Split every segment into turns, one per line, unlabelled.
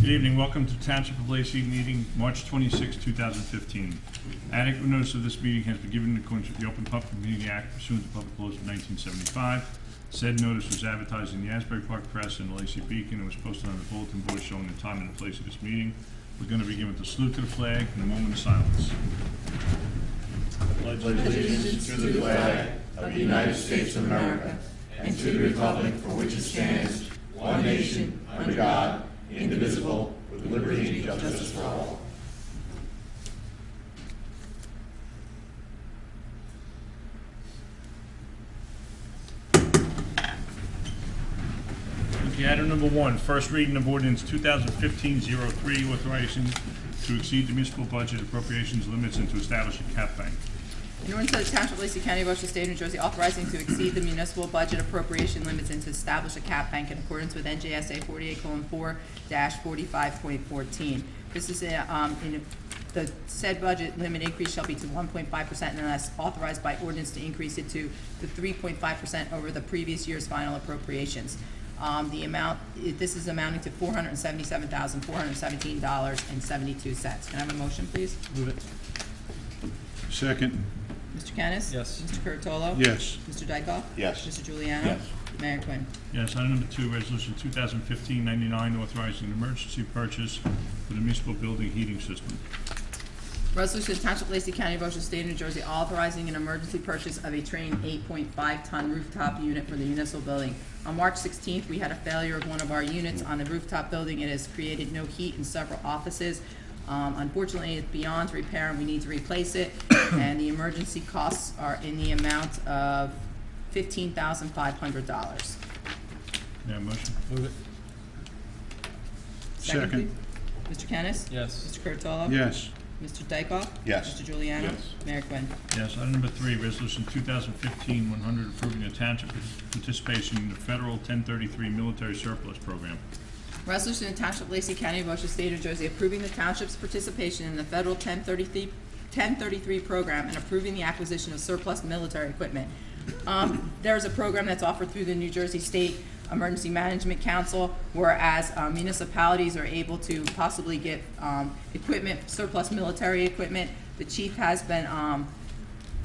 Good evening, welcome to Township of Lacey meeting, March 26, 2015. Adequate notice of this meeting has been given in accordance with the Open Public Meeting Act pursuant to public laws of 1975. Said notice was advertised in the Asbury Park Press and the Lacey Beacon and was posted on the bulletin board showing the time and the place of this meeting. We're going to begin with the salute to the flag and a moment of silence. Okay, item number one, first reading of ordinance 2015-03, authorizing to exceed the municipal budget appropriations limits and to establish a cap bank.
In order to the Township of Lacey County, Ocean State, New Jersey, authorizing to exceed the municipal budget appropriation limits and to establish a cap bank in accordance with NJSA forty-eight four forty-five point fourteen. This is, uh, um, in, a- the said budget limit increase shall be to one point five percent unless authorized by ordinance to increase it to the three point five percent over the previous year's final appropriations. Um, the amount, i- this is amounting to four hundred and seventy-seven thousand, four hundred and seventeen dollars and seventy-two cents. Can I have a motion, please?
Move it.
Second.
Mr. Kennis?
Yes.
Mr. Curatolo?
Yes.
Mr. Dykoff?
Yes.
Mr. Juliano?
Yes.
Mayor Quinn.
Yes, item number two, resolution 2015-99, authorizing an emergency purchase for the municipal building heating system.
Resolution to Township of Lacey County, Ocean State, New Jersey, authorizing an emergency purchase of a train eight point five ton rooftop unit for the municipal building. On March sixteenth, we had a failure of one of our units on the rooftop building. It has created no heat in several offices. Um, unfortunately, it's beyond repair and we need to replace it. And the emergency costs are in the amount of fifteen thousand five hundred dollars.
May I have a motion?
Move it.
Second. please. Mr. Kennis?
Yes.
Mr. Curatolo?
Yes,
Mr. Dykoff?
Yes.
Mr. Juliano?
Yes.
Mayor Quinn.
Yes, item number three, resolution 2015-100, approving the township participation in the federal 1033 military surplus program.
Resolution to Township of Lacey County, Ocean State, New Jersey, approving the township's participation in the federal 1033 1033 program and approving the acquisition of surplus military equipment. Um, There's a program that's offered through the New Jersey State Emergency Management Council, whereas uh, municipalities are able to possibly get um, equipment, surplus military equipment. The chief has been um,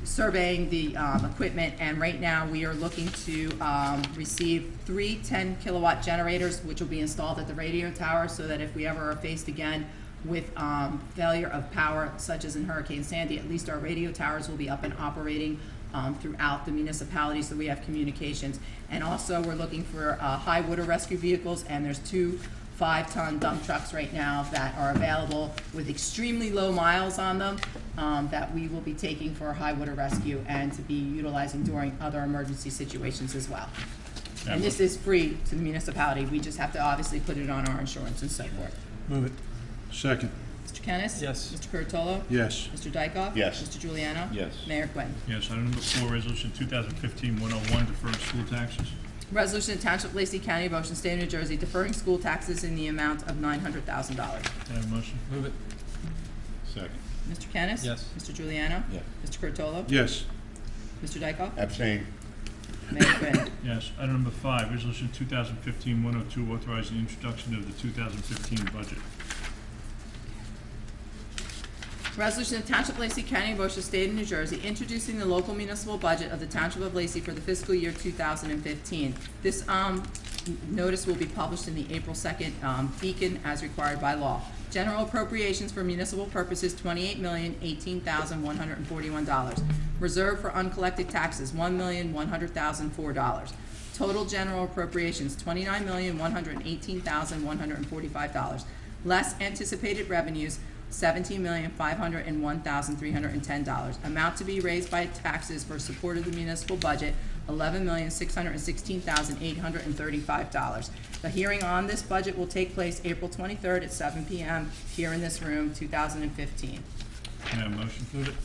surveying the um, equipment, and right now, we are looking to um, receive three 10-kilowatt generators, which will be installed at the radio tower, so that if we ever are faced again with um, failure of power, such as in Hurricane Sandy, at least our radio towers will be up and operating um, throughout the municipality, so we have communications. And also, we're looking for uh, high water rescue vehicles, and there's two five-ton dump trucks right now that are available with extremely low miles on them um, that we will be taking for high water rescue and to be utilizing during other emergency situations as well. And this is free to the municipality. We just have to obviously put it on our insurance and so forth.
Move it.
second,
Mr. Kennis?
Yes.
Mr. Curatolo?
yes,
Mr. Dykoff?
Yes.
Mr. Juliano?
Yes.
Mayor Quinn.
Yes, item number four, resolution 2015-101, deferred school taxes.
Resolution to Township of Lacey County, Ocean State of New Jersey, deferring school taxes in the amount of nine hundred thousand dollars.
May I have a motion?
Move it.
Second.
Mr. Kennis?
Yes.
Mr. Juliano?
Yes.
Mr. Curatolo?
yes,
Mr. Dykoff?
Abstain.
Mayor Quinn.
Yes, item number five, resolution 2015-102, authorizing introduction of the 2015 budget.
Resolution of Township of Lacey County, Ocean State of New Jersey, introducing the local municipal budget of the Township of Lacey for the fiscal year two thousand and fifteen. This, um, n- notice will be published in the April second, um, Beacon as required by law. General appropriations for municipal purposes, twenty-eight million, eighteen thousand, one hundred and forty-one dollars. Reserve for uncollected taxes, one million, one hundred thousand, four dollars. Total general appropriations, twenty-nine million, one hundred and eighteen thousand, one hundred and forty-five dollars. Less anticipated revenues, seventeen million, five hundred and one thousand, three hundred and ten dollars. Amount to be raised by taxes for support of the municipal budget, eleven million, six hundred and sixteen thousand, eight hundred and thirty-five dollars. The hearing on this budget will take place April twenty-third at seven PM here in this room, two thousand and fifteen.
May I have a motion?
Move it.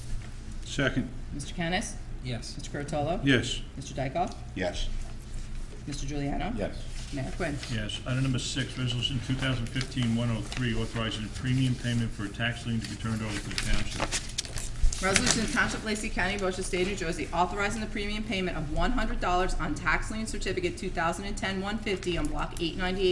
second,
Mr. Kennis?
Yes.
Mr. Curatolo?
yes,
Mr. Dykoff?
Yes.
Mr. Juliano?
Yes.
Mayor Quinn.
Yes. Item number six, resolution 2015-103, authorizing a premium payment for a tax lien to be turned over to the township.
Resolution to Township of Lacey County, Ocean State, New Jersey, authorizing the premium payment of one hundred dollars on tax lien certificate 2010-150 on block eight ninety-eight